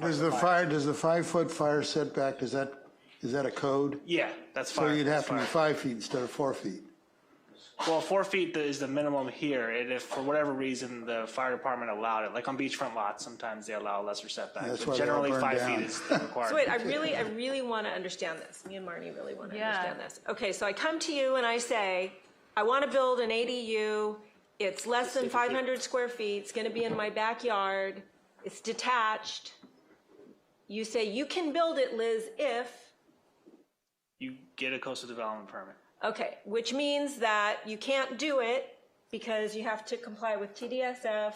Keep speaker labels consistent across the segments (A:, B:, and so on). A: Does the fire, does the five-foot fire setback, is that, is that a code?
B: Yeah, that's fine.
A: So you'd have
B: that's
A: to be
B: fine.
A: five feet instead of four feet.
B: Well, four feet is the minimum here, and if for whatever reason the fire department allowed it, like on beachfront lots, sometimes they allow lesser
A: That's why
B: setbacks, but
A: they all
B: generally
A: burn
B: five
A: down.
B: feet is the required.
C: So wait, I really, I really want to understand this. Me and Marnie really want to
D: Yeah.
C: understand this. Okay, so I come to you and I say, I want to build an ADU. It's less than 500 square feet. It's going to be in my backyard. It's detached. You say, you can build it, Liz, if,
B: You get a coastal development permit.
C: okay, which means that you can't do it because you have to comply with TDSF,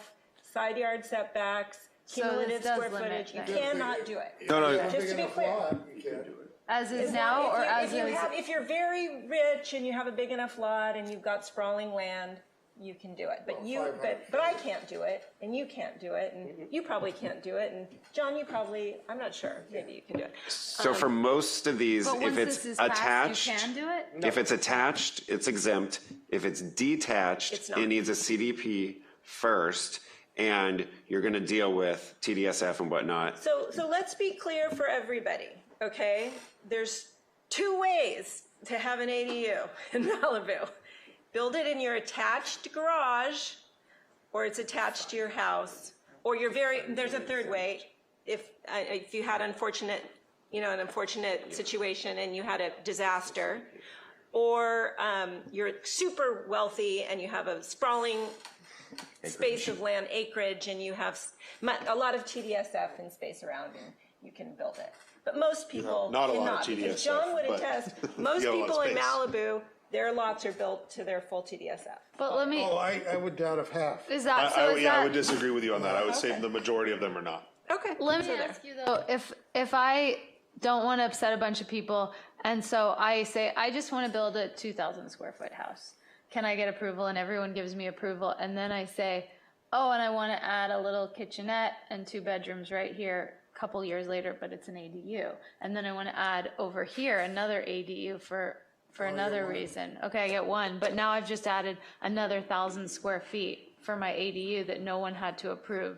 C: side yard setbacks,
D: this
C: cumulative
D: does
C: square
D: limit
C: footage. You
D: that.
C: cannot do it.
E: No, no,
C: Just to be clear.
D: As is
C: If
D: now, or
C: you-
D: as
C: if you
D: is,
C: have- If you're very rich and you have a big enough lot and you've got sprawling land, you can do it. But you, but, but I can't do it, and you can't do it, and you probably can't do it, and John, you probably, I'm not sure, maybe you can do it.
E: so for most of these,
D: Um, but once
E: if it's
D: this is passed,
E: attached,
D: you can do it?
E: if it's attached, it's exempt. If it's detached,
C: not.
E: it needs a CDP first, and you're gonna deal with TDSF and whatnot.
C: So, so let's be clear for everybody, okay? There's two ways to have an ADU in Malibu. Build it in your attached garage, or it's attached to your house, or you're very, there's a third way. If, uh, if you had unfortunate, you know, an unfortunate situation and you had a disaster, or um, you're super wealthy and you have a sprawling space of land acreage and you have s- mu- a lot of TDSF and space around and you can build it. But most people
F: Not a lot of
C: cannot, because
F: TDSF,
C: John would
F: but
C: attest,
F: you
C: most
F: got a lot of
C: people in
F: space.
C: Malibu, their lots are built to their full TDSF.
D: But let me,
A: Oh, I, I would doubt if half.
D: is
F: I,
D: that, so
F: I,
D: is
F: yeah, I would
D: that,
F: disagree with you on that. I would say
C: Okay.
F: the majority of them are not.
C: Okay.
D: let
C: so
D: me
C: there.
D: ask you though, if, if I don't want to upset a bunch of people, and so I say, I just want to build a two thousand square foot house, can I get approval? And everyone gives me approval, and then I say, oh, and I want to add a little kitchenette and two bedrooms right here, a couple years later, but it's an ADU. And then I want to add over here another ADU for, for
C: Oh,
D: another reason. Okay, I get one, but now I've just added another thousand square feet for my ADU that no one had to approve.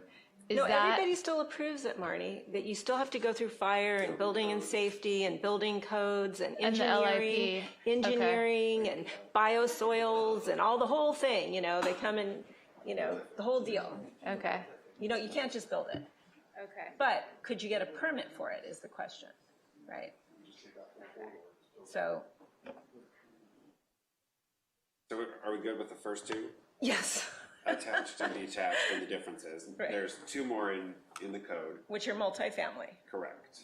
D: Is
C: No,
D: that,
C: everybody still approves it, Marnie, that you still have to go through fire and building and safety and building codes and
D: And the
C: engineering.
D: LIP, okay.
C: Engineering and biosoils and all the whole thing, you know, they come and, you know, the whole deal.
D: okay.
C: You know, you can't just build it.
D: Okay.
C: But could you get a permit for it is the question, right? So,
E: So are we good with the first two?
C: yes,
E: Attached and detached and the differences.
C: Right.
E: There's two more in, in the code,
C: which are multifamily.
E: correct.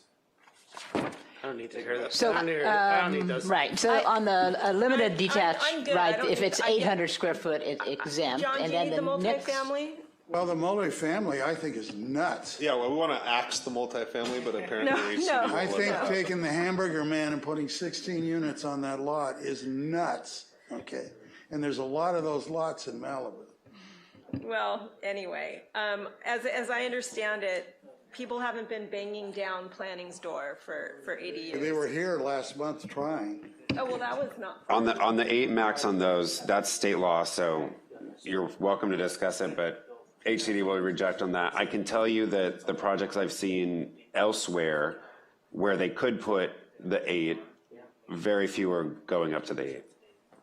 G: I don't need to hear this.
H: So, um,
G: I don't need, to hear this. I don't need those.
H: Right, so on the uh,
C: I'm- I'm-
H: limited detached,
C: I'm good. I
H: right,
C: don't
H: if
C: think-
H: it's
C: I get-
H: 800 square foot, it's exempt.
C: John, do
H: and
C: you
H: then
C: need the
H: next-
C: multifamily?
A: Well, the multifamily, I think, is nuts.
F: Yeah, well, we want to axe the multifamily, but apparently
C: No,
F: we
C: no.
A: I think taking the hamburger man and putting 16 units on that lot is nuts, okay? And there's a lot of those lots in Malibu.
C: Well, anyway, um, as, as I understand it, people haven't been banging down planning's door for, for
A: They
C: ADUs.
A: were here last month trying.
C: Oh, well, that was not,
E: On the, on the eight max on those, that's state law, so you're welcome to discuss it, but HCD will reject on that. I can tell you that the projects I've seen elsewhere where they could put the eight, very few are going up to the eight.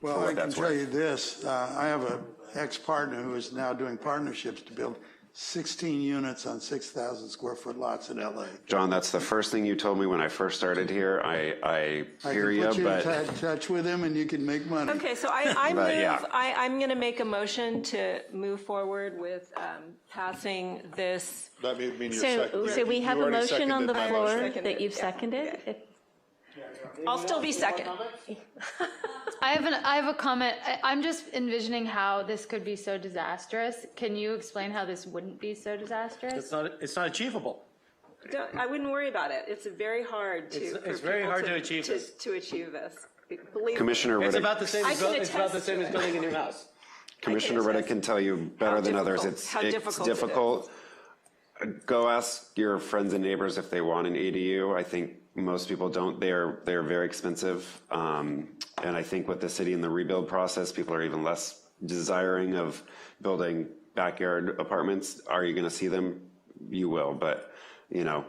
A: Well, I can
E: that's
A: tell
E: worth.
A: you this, uh, I have a ex-partner who is now doing partnerships to build 16 units on 6,000 square foot lots in LA.
E: John, that's the first thing you told me when I first started here. I, I
A: I
E: hear
A: can
E: you,
A: put you in
E: but
A: tou- touch with him and you can make money.
C: okay, so I, I
E: But, yeah.
C: move, I, I'm gonna make a motion to move forward with, um, passing this.
F: That may mean you're
I: So,
F: second.
I: so we
F: you
I: have a
F: already
I: motion on
F: seconded
I: the
F: my
I: floor
F: motion.
I: that you've
C: Yeah.
I: seconded? If-
C: I'll still be second.
D: I have an, I have a comment. I, I'm just envisioning how this could be so disastrous. Can you explain how this wouldn't be so disastrous?
G: It's not, it's not achievable.
C: Don't, I wouldn't worry about it. It's very hard to.
G: It's-
C: for
G: it's very
C: people
G: hard to achieve this.
C: To achieve this. Believe me.
E: Commissioner
G: It's
E: Riddick,
G: about the same,
C: I
G: as
C: can
G: buil- it's about the
C: attest
G: same
C: to
G: as
C: it.
G: building a new house.
E: Commissioner Riddick
C: attest
E: can tell you better
C: how
E: than others,
C: difficult-
E: it's,
C: how
E: it's
C: difficult it is.
E: difficult. Go ask your friends and neighbors if they want an ADU. I think most people don't. They're, they're very expensive. Um, And I think with the city in the rebuild process, people are even less desiring of building backyard apartments. Are you going to see them? You will, but, you know,